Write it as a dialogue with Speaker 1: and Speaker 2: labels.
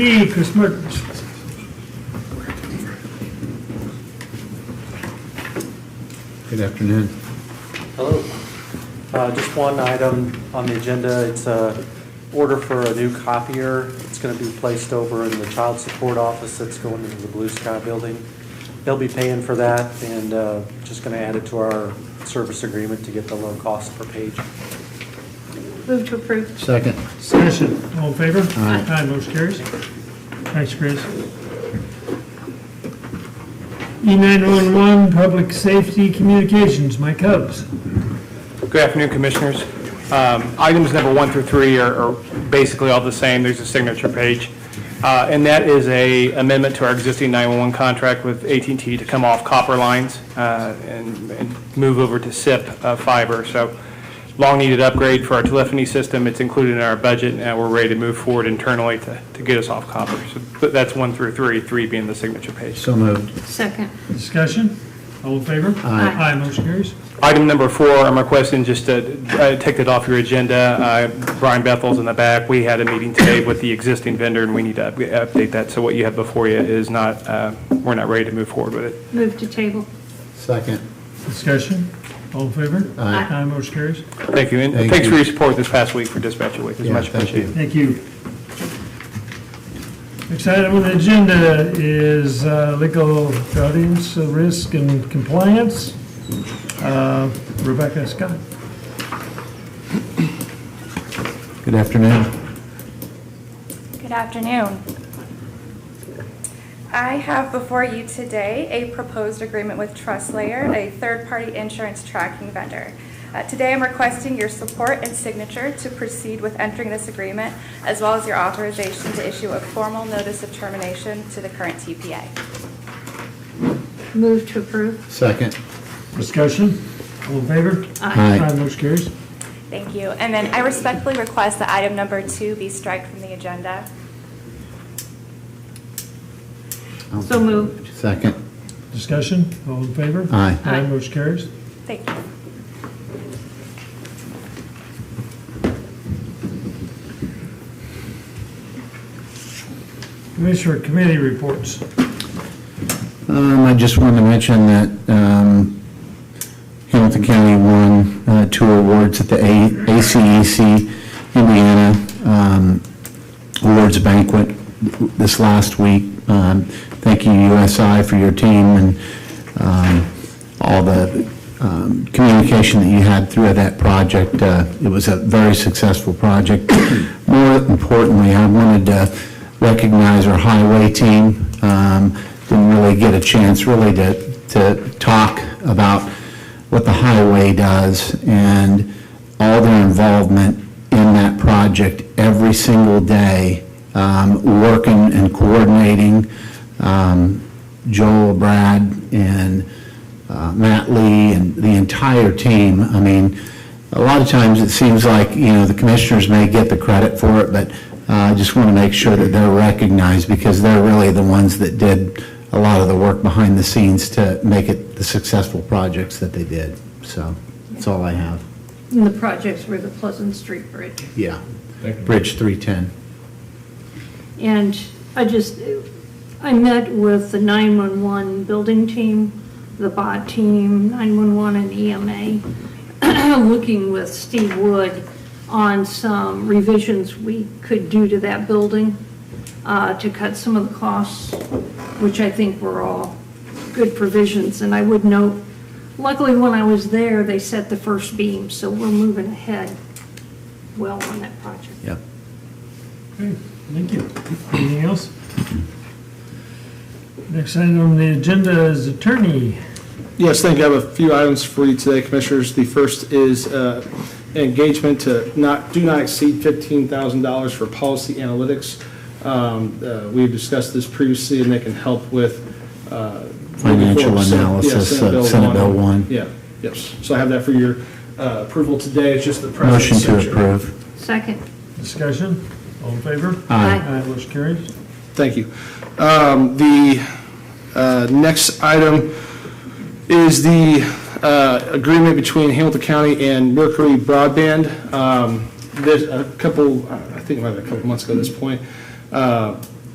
Speaker 1: E, Chris Murders.
Speaker 2: Good afternoon.
Speaker 3: Hello. Uh, Just one item on the agenda. It's a order for a new copier. It's going to be placed over in the child support office that's going into the Blue Sky building. They'll be paying for that and uh, just going to add it to our service agreement to get the low cost per page.
Speaker 4: Move to approve.
Speaker 2: Second.
Speaker 1: Discussion, all in favor?
Speaker 2: Aye.
Speaker 1: motion carries. Thanks, Chris. E E911, Public Safety Communications, Mike Hubbs.
Speaker 5: Good afternoon, Commissioners. Um, Items number one through three are are basically all the same. There's a signature page. Uh, And that is a amendment to our existing 911 contract with at and t to come off copper lines uh, and and move over to SIP uh, fiber. So long-needed upgrade for our telephony system. It's included in our budget, and we're ready to move forward internally to to get us off copper. So but that's one through three, three being the signature page.
Speaker 2: So moved.
Speaker 4: Second.
Speaker 1: Discussion, all in favor?
Speaker 4: Aye.
Speaker 1: motion carries.
Speaker 5: Item number four, I'm requesting just to uh, take that off your agenda. Uh, Brian Bethel's in the back. We had a meeting today with the existing vendor, and we need to up- update that. So what you have before you is not, uh, we're not ready to move forward with it.
Speaker 4: Move to table.
Speaker 2: Second.
Speaker 1: Discussion, all in favor?
Speaker 2: Aye.
Speaker 1: motion carries.
Speaker 5: Thank you, and
Speaker 2: Thank
Speaker 5: thanks for
Speaker 2: you.
Speaker 5: your support this past week for Dispatcher Week. It's
Speaker 2: Yeah,
Speaker 5: much
Speaker 2: thank you.
Speaker 5: appreciated.
Speaker 1: Thank you. Next item on the agenda is uh, legal guardians of risk and compliance. Uh, Rebecca Scott.
Speaker 2: Good afternoon.
Speaker 6: Good afternoon. I have before you today a proposed agreement with TrustLayer, a third-party insurance tracking vendor. Uh, Today, I'm requesting your support and signature to proceed with entering this agreement, as well as your authorization to issue a formal notice of termination to the current TPA.
Speaker 4: Move to approve.
Speaker 2: Second.
Speaker 1: Discussion, all in favor?
Speaker 2: Aye.
Speaker 1: motion carries.
Speaker 6: Thank you. And then I respectfully request that item number two be striked from the agenda.
Speaker 4: So moved.
Speaker 2: Second.
Speaker 1: Discussion, all in favor?
Speaker 2: Aye.
Speaker 1: Aye,
Speaker 4: Aye.
Speaker 1: motion carries.
Speaker 6: Thank you.
Speaker 1: Commissioner Committee reports.
Speaker 2: Um, I just wanted to mention that, um, Hamilton County won, uh, two awards at the A- ACEC Indiana, um, Awards Banquet this last week. Um, Thank you, USI, for your team and um, all the um, communication that you had through that project. Uh, It was a very successful project. More importantly, I wanted to recognize our highway team. Um, Didn't really get a chance really to to talk about what the highway does and all their involvement in that project every single day, um, working and coordinating. Um, Joel, Brad, and uh, Matt Lee, and the entire team. I mean, a lot of times it seems like, you know, the commissioners may get the credit for it, but uh, I just want to make sure that they're recognized because they're really the ones that did a lot of the work behind the scenes to make it the successful projects that they did. So that's all I have.
Speaker 4: And the projects were the Pleasant Street Bridge.
Speaker 2: Yeah. Bridge 310.
Speaker 4: And I just, I met with the 911 building team, the bot team, 911 and EMA, looking with Steve Wood on some revisions we could do to that building uh, to cut some of the costs, which I think were all good provisions. And I would note, luckily when I was there, they set the first beam, so we're moving ahead well on that project.
Speaker 2: Yep.
Speaker 1: Okay, thank you. Anything else? Next item on the agenda is attorney.
Speaker 7: Yes, thank you. I have a few items for you today, Commissioners. The first is uh, engagement to not, do not exceed $15,000 for policy analytics. Um, uh, We've discussed this previously, and they can help with. uh,
Speaker 2: Financial
Speaker 7: 94%.
Speaker 2: analysis
Speaker 7: Yeah,
Speaker 2: of Senate Bill one.
Speaker 7: Yeah, yes. So I have that for your uh, approval today. It's just the president's
Speaker 2: Motion to
Speaker 7: signature.
Speaker 2: approve.
Speaker 4: Second.
Speaker 1: Discussion, all in favor?
Speaker 4: Aye.
Speaker 1: Aye, motion carries.
Speaker 7: Thank you. Um, The uh, next item is the uh, agreement between Hamilton County and Mercury Broadband. Um, There's a couple, I think about a couple months ago at this point, uh,